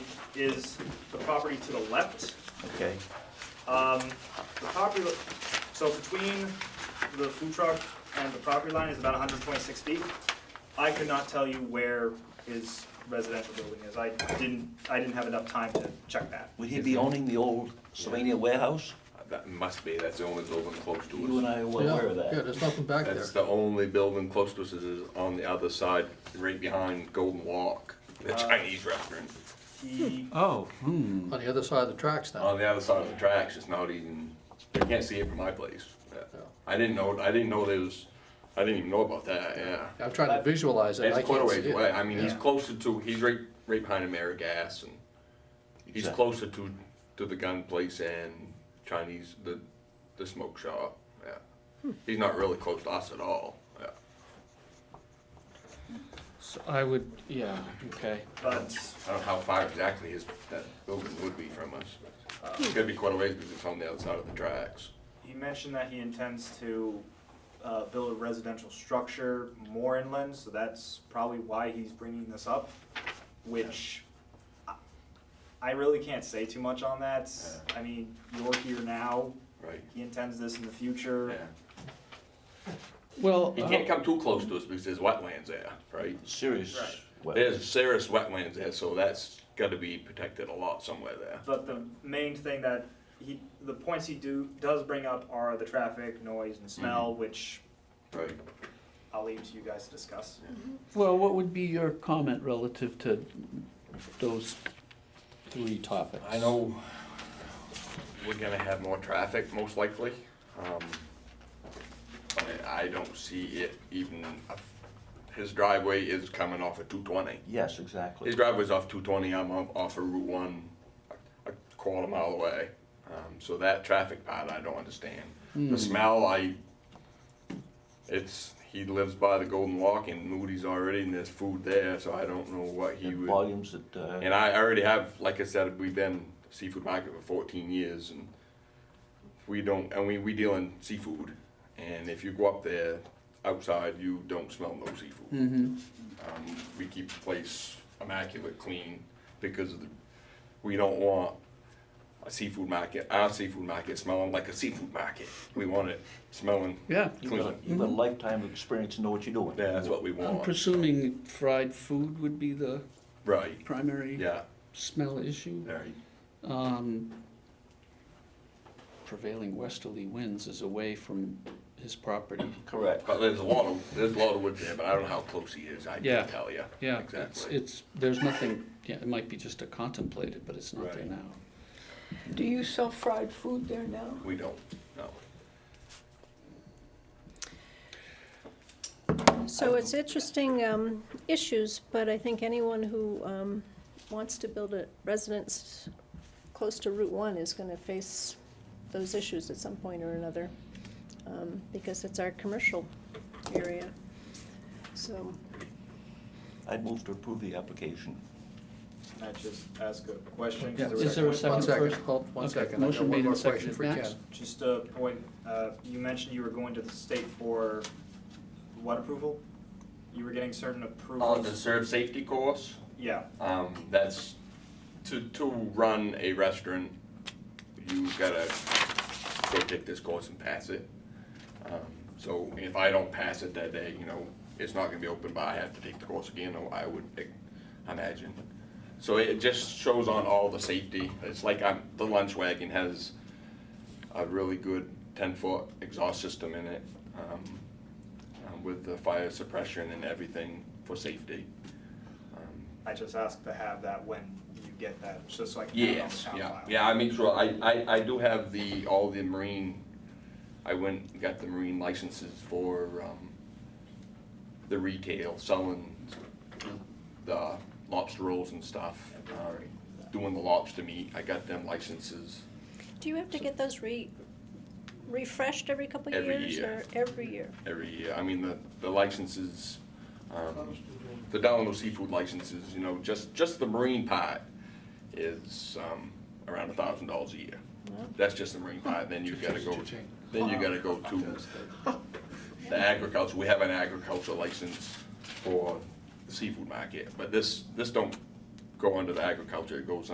is the property to the left. Okay, Um, the property, so between the food truck and the property line is about hundred twenty-six feet. I could not tell you where his residential building is, I didn't, I didn't have enough time to check that. would he be owning the old Sylvania warehouse? That must be, that's the only building close You to and us. I were Yeah, aware of Yeah, that. there's nothing back there. That's the only building close to us is on the other side, right behind Golden Walk, Uh, the Chinese restaurant. He, Oh, On the other side of the tracks now. On the other side of the tracks, it's not even, you can't see it from my place. Yeah. I didn't know, I didn't know there was, I didn't even know about that, yeah. I'm trying to visualize it. I It's quite a can't see ways away, it. I mean, he's Yeah. closer to, he's right, right behind AmeriGas and he's Exactly. closer to, to the gun place and Chinese, the, the smoke shop, Hmm. yeah. He's not really close to us at all, yeah. So I would, yeah, okay. but, I don't know how far exactly his, that building would be from us. uh, It's gonna be quite a ways because it's on the outside of the tracks. he mentioned that he intends to, uh, build a residential structure more inland, so that's probably why he's bringing this up, which I- I really can't say too much on that, I mean, you're here now, Right. he intends this in the future. Yeah. Well, uh, He can't come too close to us because there's wetlands there, right? Serious. Right. well, There's serious wetlands there, so that's gotta be protected a lot somewhere there. But the main thing that he, the points he do, does bring up are the traffic, noise, and smell, which Right. I'll leave to you guys to discuss. well, what would be your comment relative to those three topics? I know we're gonna have more traffic, most likely. Um, but I don't see it even, uh, his driveway is coming off of two twenty. Yes, His exactly. driveway's off two twenty, I'm off, off of Route one, a a quarter mile away. Um, so that traffic part, I don't understand. The smell, I, it's, he lives by the Golden Walk and Moody's already, and there's food there, so I don't know what he It would. Volumes that, uh, And I already have, like I said, we've been seafood market for fourteen years and we don't, and we, we deal in seafood. And if you go up there outside, you don't smell no seafood. Mm-hmm. Um, we keep the place immaculate clean because of the, we don't want a seafood market, our seafood market smelling like a seafood market. We want it smelling Yeah, you've got, clean. you've got a lifetime of experience and know what you're doing. Yeah, that's what we I'm want. presuming fried food would be the Right, primary yeah, smell issue. right. Um, prevailing westerly winds is away from his property. Correct. But there's a lot of, there's a lot of wood there, but I don't know how close he is, I Yeah. can't tell you. Yeah, it's, Exactly. it's, there's nothing, yeah, it might be just a contemplated, but it's not there Right. now. Do you sell fried food there now? We don't, no. So it's interesting um, issues, but I think anyone who um, wants to build a residence close to Route 1 is going to face those issues at some point or another, um, because it's our commercial area. So, I'd move to approve the application. Can I just ask a question? 'Cause Yeah, there was Is there a a- One second second, first? hold, one Okay, second. I got motion one made more and question seconded. if we can. Max? Just a point, uh, you mentioned you were going to the state for what approval? You were getting certain On the approvals? serve safety course, Yeah, um, that's to, to run a restaurant, you gotta go take this course and pass it. Um, So if I don't pass it that day, you know, it's not gonna be open, but I have to take the course again, or I would eh, imagine. So it just shows on all the safety, it's like I'm, the lunch wagon has a really good ten-foot exhaust system in it, um, um, with the fire suppression and everything for safety. Um, I just asked to have that when you get that, just so I can have it on the Yes, town yeah, file. yeah, I make sure, I, I, I do have the, all the marine, I went, and got the marine licenses for, um, the retail, selling the lobster rolls and stuff, um, doing the lobster meat, I got them licenses. do you have to get those re, refreshed every couple of Every years? year. Or every year? every year. I mean, the, the licenses, um, the Delano seafood licenses, you know, just, just the marine part is, um, around a thousand dollars a year. That's just the marine part, then you gotta go, then you gotta go to the agriculture, we have an agriculture license for the seafood market, but this, this don't go under the agriculture, it goes